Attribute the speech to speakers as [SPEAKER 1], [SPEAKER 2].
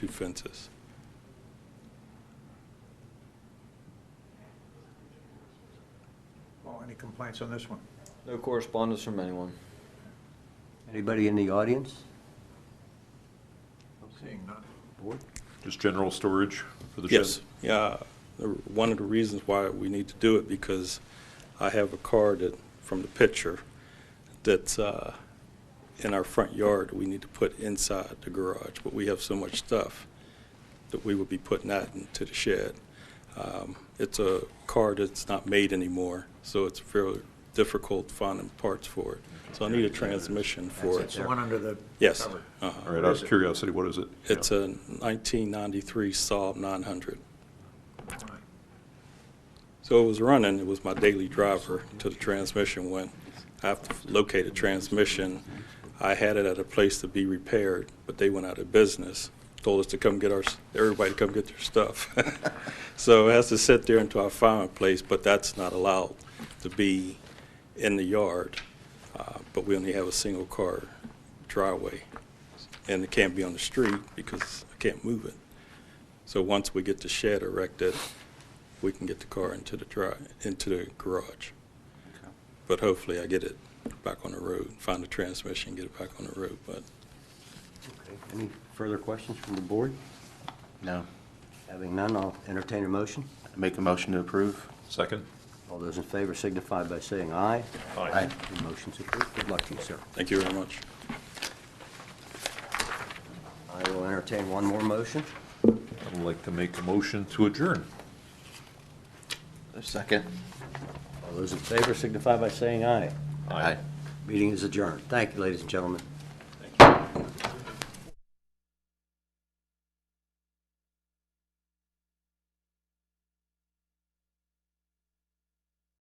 [SPEAKER 1] two fences.
[SPEAKER 2] Well, any complaints on this one?
[SPEAKER 3] No correspondence from anyone.
[SPEAKER 4] Anybody in the audience?
[SPEAKER 2] Seeing none.
[SPEAKER 4] Board?
[SPEAKER 5] Just general storage for the shed?
[SPEAKER 1] Yes, yeah, the- one of the reasons why we need to do it, because I have a car that, from the picture, that's uh, in our front yard, we need to put inside the garage, but we have so much stuff that we would be putting that into the shed. Um, It's a car that's not made anymore, so it's very difficult finding parts for it. So I need a transmission for
[SPEAKER 2] It's
[SPEAKER 1] it.
[SPEAKER 2] the one under the.
[SPEAKER 1] Yes.
[SPEAKER 2] cover.
[SPEAKER 1] uh-huh.
[SPEAKER 5] All right, out of curiosity, what is it?
[SPEAKER 1] It's
[SPEAKER 5] Yeah.
[SPEAKER 1] a 1993 Saab 900.
[SPEAKER 2] All right.
[SPEAKER 1] So it was running, it was my daily driver till the transmission went. I have to locate a transmission. I had it at a place to be repaired, but they went out of business. Told us to come get our, everybody to come get their stuff. So it has to sit there until I find a place, but that's not allowed to be in the yard. Uh, But we only have a single car driveway. And it can't be on the street because I can't move it. So once we get the shed erected, we can get the car into the dri, into the garage. But hopefully I get it back on the road, find the transmission, get it back on the road, but
[SPEAKER 4] Okay. Any further questions from the board?
[SPEAKER 6] No.
[SPEAKER 4] Having none, I'll entertain a motion.
[SPEAKER 6] Make a motion to approve?
[SPEAKER 5] Second?
[SPEAKER 4] All those in favor signify by saying aye.
[SPEAKER 6] Aye.
[SPEAKER 4] The motion's approved. Good luck to you, sir.
[SPEAKER 1] thank you very much.
[SPEAKER 4] I will entertain one more motion.
[SPEAKER 5] I'd like to make a motion to adjourn.
[SPEAKER 6] Second.
[SPEAKER 4] All those in favor signify by saying aye.
[SPEAKER 6] Aye.
[SPEAKER 4] Meeting is adjourned. Thank you, ladies and gentlemen.